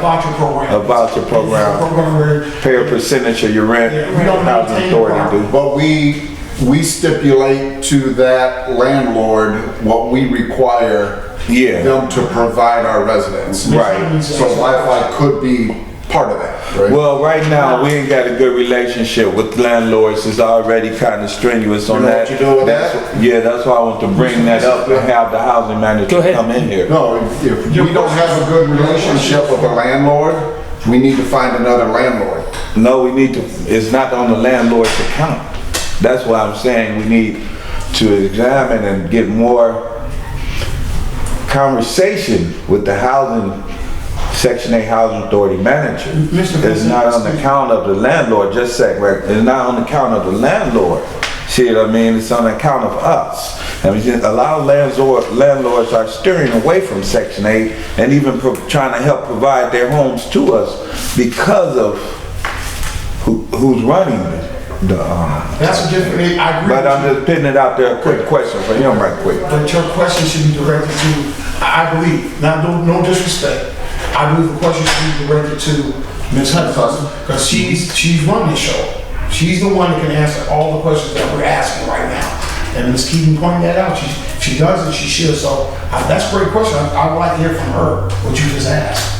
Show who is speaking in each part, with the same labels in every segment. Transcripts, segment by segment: Speaker 1: voucher program.
Speaker 2: A voucher program.
Speaker 1: It's a Program where,
Speaker 2: pay a percentage of your rent,
Speaker 1: Yeah, we don't
Speaker 2: housing
Speaker 1: maintain
Speaker 2: authority
Speaker 1: property.
Speaker 2: do.
Speaker 3: But we, we stipulate to that landlord what we require
Speaker 2: Yeah.
Speaker 3: them to provide our residents.
Speaker 2: Right.
Speaker 3: So Wi-Fi could be part of that, right?
Speaker 2: Well, right now, we ain't got a good relationship with landlords, it's already kind of strenuous
Speaker 3: You
Speaker 2: on
Speaker 3: know what
Speaker 2: that.
Speaker 3: you do with
Speaker 2: That's-
Speaker 3: that?
Speaker 2: Yeah, that's why I want to bring that up and have the housing manager
Speaker 4: ahead.
Speaker 2: come in here.
Speaker 3: No, if- if we don't have a good relationship with a landlord, we need to find another landlord.
Speaker 2: No, we need to, it's not on the landlord's account. That's why I'm saying we need to examine and get more conversation with the housing, Section 8 Housing Authority manager.
Speaker 1: Mr.
Speaker 2: It's not on the
Speaker 1: President.
Speaker 2: account of the landlord, just a sec, right? It's not on the account of the landlord. See what I mean? It's on the account of us. I mean, just a lot of landlord, landlords are steering away from Section 8 and even pro- trying to help provide their homes to us because of who, who's running the, um,
Speaker 1: that's a different, I agree with
Speaker 2: but
Speaker 1: you.
Speaker 2: I'm just putting it out there, a quick question for him right quick.
Speaker 1: But your question should be directed to, I I believe, not, no- no disrespect, I believe the question should be directed to Ms. Hudson, because she's, she's running the show. She's the one that can answer all the questions that we're asking right now. And Ms. Keaton pointed that out, she, she does and she should, so uh, that's a great question. I I would like to hear from her, what you just asked.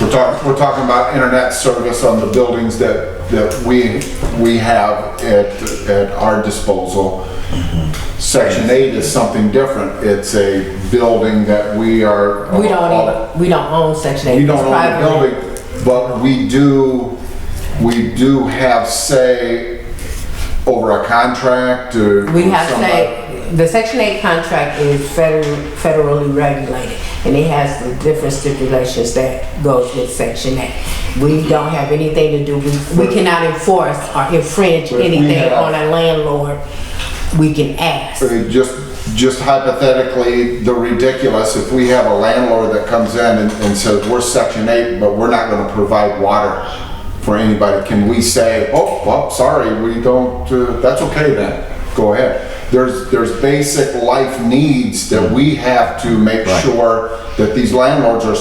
Speaker 3: We're talking, we're talking about internet service on the buildings that, that we, we have at, at our disposal. Section 8 is something different. It's a building that we are.
Speaker 4: We don't even, we don't own Section 8.
Speaker 3: We don't
Speaker 4: It's
Speaker 3: own the
Speaker 4: private.
Speaker 3: building, but we do, we do have say over a contract or.
Speaker 4: We have
Speaker 3: somebody.
Speaker 4: say, the Section 8 contract is feder- federally regulated, and it has the different stipulations that goes with Section 8. We don't have anything to do, we we cannot enforce or infringe
Speaker 3: But we
Speaker 4: anything
Speaker 3: have-
Speaker 4: on a landlord. We can ask.
Speaker 3: Uh, Just, just hypothetically, the ridiculous, if we have a landlord that comes in and, and says, we're section eight, but we're not gonna provide water for anybody, can we say, oh, well, sorry, we don't, uh, that's okay then, go ahead. There's, there's basic life needs that we have to make sure that these landlords are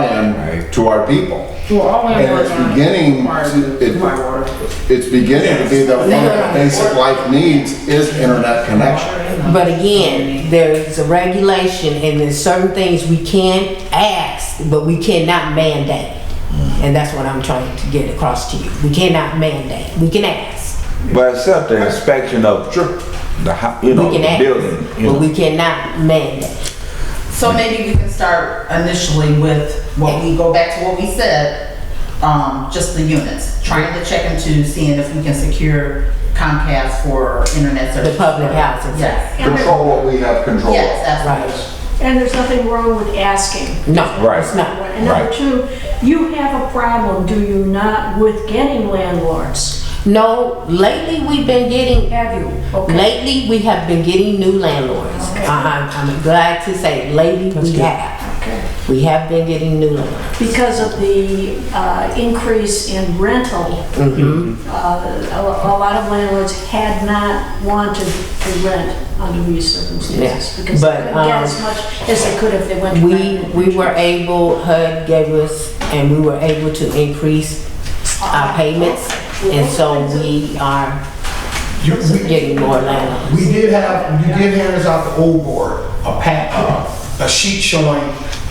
Speaker 3: supplying to our people.
Speaker 5: Well, all
Speaker 3: And it's
Speaker 5: landlords are
Speaker 3: beginning
Speaker 5: required
Speaker 3: to-
Speaker 5: to provide water.
Speaker 3: It's beginning to be that one of the basic life needs is internet connection.
Speaker 4: But again, there is a regulation and there's certain things we can ask, but we cannot mandate. And that's what I'm trying to get across to you. We cannot mandate, we can ask.
Speaker 2: But except the inspection of the, hou- you
Speaker 4: We
Speaker 2: know,
Speaker 4: can
Speaker 2: the
Speaker 4: ask,
Speaker 2: building. you know.
Speaker 4: but we cannot mandate.
Speaker 5: So maybe we can start initially with what we, go back to what we said, um, just the units. Trying to check into seeing if we can secure Comcast for internet service.
Speaker 4: The public housing.
Speaker 5: Yes.
Speaker 3: Control what we have control. of.
Speaker 5: Yes, absolutely.
Speaker 4: Right.
Speaker 6: And there's nothing wrong with asking.
Speaker 4: No,
Speaker 2: Right.
Speaker 4: it's not.
Speaker 6: And number
Speaker 2: Right.
Speaker 6: two, you have a problem, do you not, with getting landlords?
Speaker 4: No, lately we've been getting,
Speaker 6: Have you? Okay.
Speaker 4: lately we have been getting new landlords.
Speaker 6: Okay.
Speaker 4: I- I'm I'm glad to say, lately we have.
Speaker 6: Okay.
Speaker 4: We have been getting new landlords.
Speaker 6: Because of the uh, increase in rental, uh, a a lot of landlords had not wanted to rent under these circumstances.
Speaker 4: Yeah,
Speaker 6: Because they
Speaker 4: but,
Speaker 6: couldn't get
Speaker 4: um,
Speaker 6: as much as they could if they went to
Speaker 4: We,
Speaker 6: rent.
Speaker 4: we were able, HUD gave us, and we were able to increase our payments, and so we are
Speaker 1: You- we-
Speaker 4: getting more land.
Speaker 1: We did have, you did hand us out the old board, a pa, uh, a sheet showing,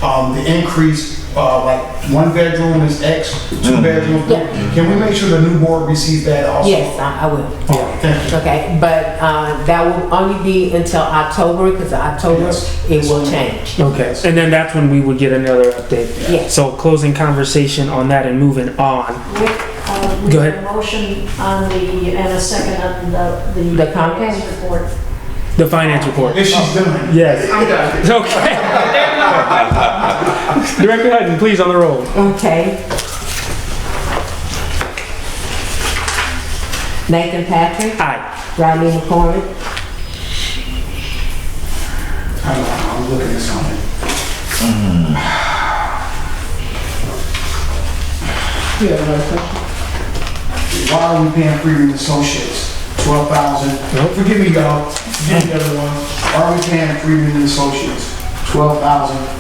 Speaker 1: um, the increase, uh, like, one bedroom is X, two bedrooms.
Speaker 4: Yeah.
Speaker 1: Can we make sure the new board receives that also?
Speaker 4: Yes, I, I will.
Speaker 1: Okay, thank you.
Speaker 4: Okay, but, uh, that will only be until October, because October, it will change.
Speaker 1: Okay.
Speaker 4: Yes.
Speaker 1: And
Speaker 4: Yes.
Speaker 7: And then that's when we would get another update.
Speaker 4: Yes.
Speaker 7: So closing conversation on that and moving on.
Speaker 6: Rick, uh, we
Speaker 7: Go
Speaker 6: have
Speaker 7: ahead.
Speaker 6: a motion on the, and a second on the.
Speaker 4: The Comcast?
Speaker 6: Report.
Speaker 7: The finance report.
Speaker 1: If she's done.
Speaker 7: Yes. Okay. Director Hutton, please, on the roll.
Speaker 4: Okay. Nathan Patrick,
Speaker 7: Aye.
Speaker 4: Rodney McCormick,
Speaker 1: I don't know, I'm looking at something. Why are we paying Freedom Associates twelve thousand? Forgive me, y'all, forgive the other one. Why are we paying Freedom Associates twelve thousand